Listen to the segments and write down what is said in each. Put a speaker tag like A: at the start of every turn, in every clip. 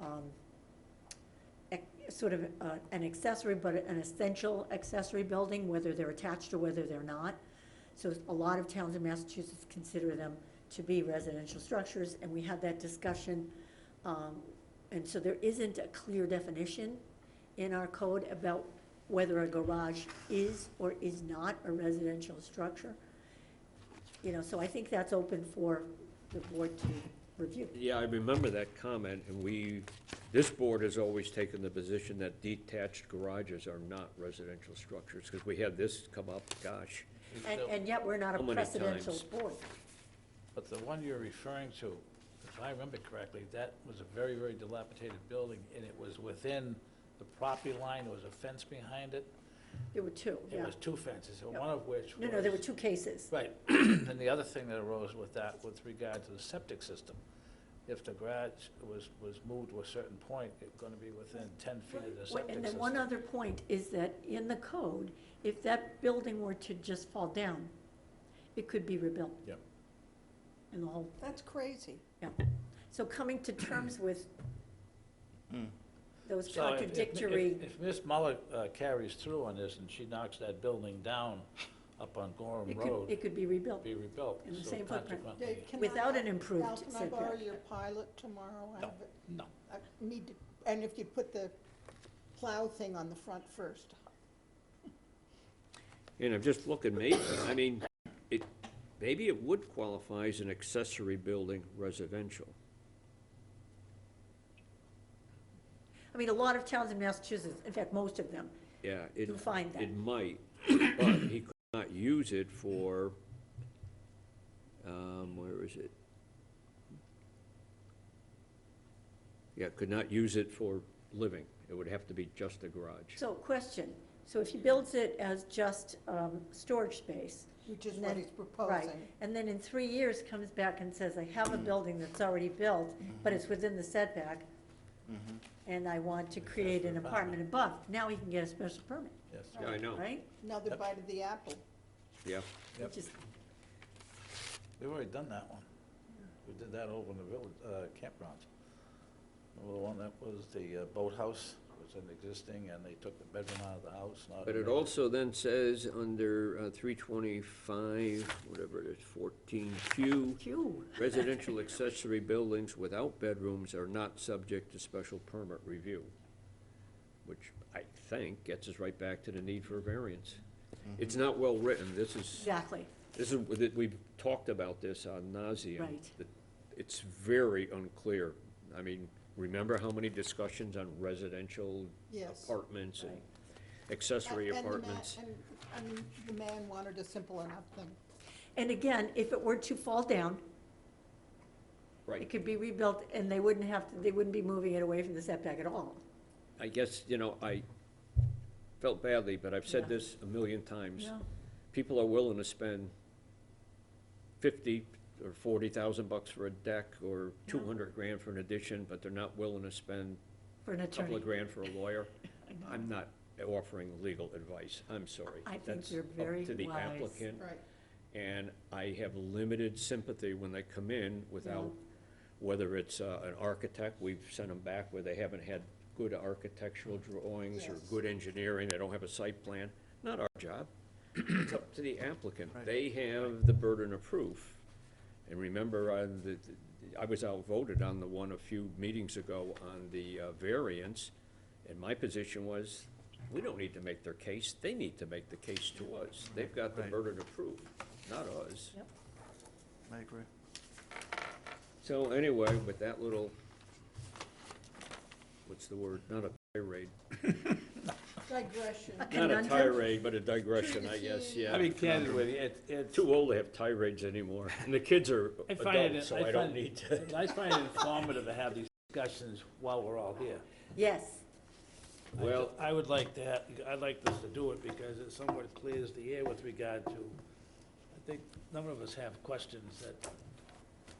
A: um, ec- sort of uh, an accessory, but an essential accessory building, whether they're attached or whether they're not. So a lot of towns in Massachusetts consider them to be residential structures, and we had that discussion. um, And so there isn't a clear definition in our code about whether a garage is or is not a residential structure. You know, so I think that's open for the board to review.
B: Yeah, I remember that comment, and we, this board has always taken the position that detached garages are not residential structures, because we had this come up, gosh.
A: And, and yet, we're not a
B: How many
A: precedential
B: times?
A: board.
C: But the one you're referring to, if I remember correctly, that was a very, very dilapidated building, and it was within the property line, there was a fence behind it.
A: There were two,
C: It
A: yeah.
C: was two fences, and
A: Yeah.
C: one of which
A: No,
C: was.
A: no, there were two cases.
C: Right, and the other thing that arose with that, with regard to the septic system, if the garage was, was moved to a certain point, it's gonna be within ten feet of the
A: Wait,
C: septic
A: And then
C: system.
A: one other point is that in the code, if that building were to just fall down, it could be rebuilt.
C: Yep.
A: And the whole,
D: That's crazy.
A: yeah. So coming to terms with those
C: Hmm. So if- if-
A: contradictory,
C: If if Ms. Muller uh, carries through on this and she knocks that building down up on Gorham
A: it could,
C: Road,
A: it could be rebuilt.
C: be rebuilt.
A: in the
C: so
A: same footprint.
C: consequently-
D: Dave, can I-
A: Without an improved
D: Al, can I borrow
A: setback.
D: your pilot tomorrow? I
C: No.
D: have it-
C: No,
D: I need to, and if you put the plow thing on the front first.
B: And I'm just looking, maybe, I mean, it, maybe it would qualify as an accessory building residential.
A: I mean, a lot of towns in Massachusetts, in fact, most of them,
B: Yeah, it,
A: You'll find that.
B: it might, but he could not use it for, um, where is it? Yeah, could not use it for living. It would have to be just a garage.
A: So, question, so if he builds it as just, um, storage space.
D: Which is
A: and
D: what
A: then-
D: he's proposing.
A: Right, and then in three years comes back and says, I have a
B: Mm-hmm.
A: building that's already built, but it's within the setback,
B: Mm-hmm.
A: and I want to create an
C: Accessory
A: apartment
C: apartment.
A: above, now he can get a special permit,
C: yes.
B: Yeah, I know,
A: right?
D: Another
C: Yep.
D: bite of the apple.
B: yeah.
C: Yep.
A: Which is,
C: We've already done that one. We did that over in the village, uh, campgrounds. Remember the one that was the uh, boathouse, was an existing, and they took the bedroom out of the house, not.
B: But it also then says under uh, three twenty-five, whatever it is, fourteen Q,
A: Q,
B: residential accessory buildings without bedrooms are not subject to special permit review, which I think gets us right back to the need for a variance. It's not well-written, this is,
A: exactly,
B: this is, with it- we've talked about this on nauseam.
A: Right.
B: It's very unclear. I mean, remember how many discussions on residential
D: Yes.
B: apartments and
A: Right.
B: accessory
D: And- and the man-
B: apartments?
D: And, I mean, the man wanted a simple enough thing.
A: and again, if it were to fall down,
B: Right.
A: it could be rebuilt, and they wouldn't have, to. they wouldn't be moving it away from the setback at all.
B: I guess, you know, I felt badly, but I've
A: Yeah.
B: said this a million times.
A: Yeah.
B: People are willing to spend fifty or forty thousand bucks for a deck or two hundred grand for an addition, but they're not willing to spend
A: For an
B: a
A: attorney,
B: couple of grand for a lawyer.
A: I know.
B: I'm not offering legal advice, I'm sorry.
A: I think
B: That's
A: you're
B: up
A: very
B: to the
A: wise.
B: applicant,
D: Right.
B: And I have limited sympathy when they come in without, whether it's uh, an architect, we've sent them back where they haven't had good architectural drawings or
D: Yes.
B: good engineering, they don't have a site plan. Not our job. It's up to the applicant. They have the burden of proof. And remember, I, the, I was outvoted on the one a few meetings ago on the uh, variance, and my position was, we don't need to make their case, they need to make the case to us. They've got the
E: Right.
B: burden of proof, not us.
A: Yep.
E: I agree.
B: So anyway, with that little, what's the word, not a tirade,
D: Digression.
A: Okay.
B: not a
A: Conundrum?
B: tirade, but a digression, I guess, yeah.
C: I mean, candid with you, it's, it's.
B: Too old to have tirades anymore, and the kids are
C: I find
B: adults,
C: it-
B: so I
C: find
B: don't
C: it-
B: need to.
C: I find it informative to have these discussions while we're all here.
A: yes,
C: I
B: Well-
C: ju- I would like to, have- I'd like us to do it because it somewhat clears the air with regard to, I think, a number of us have questions that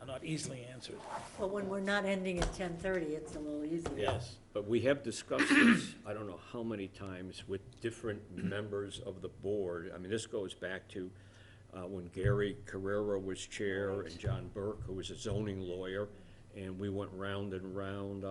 C: are not easily answered.
A: well, when we're not ending at ten-thirty, it's a little easier.
C: Yes.
B: But we have discussed this, I don't know how many times, with different members of the board. I mean, this goes back to uh, when Gary Carrera was chair and John Burke, who was a zoning lawyer, and we went round and round on.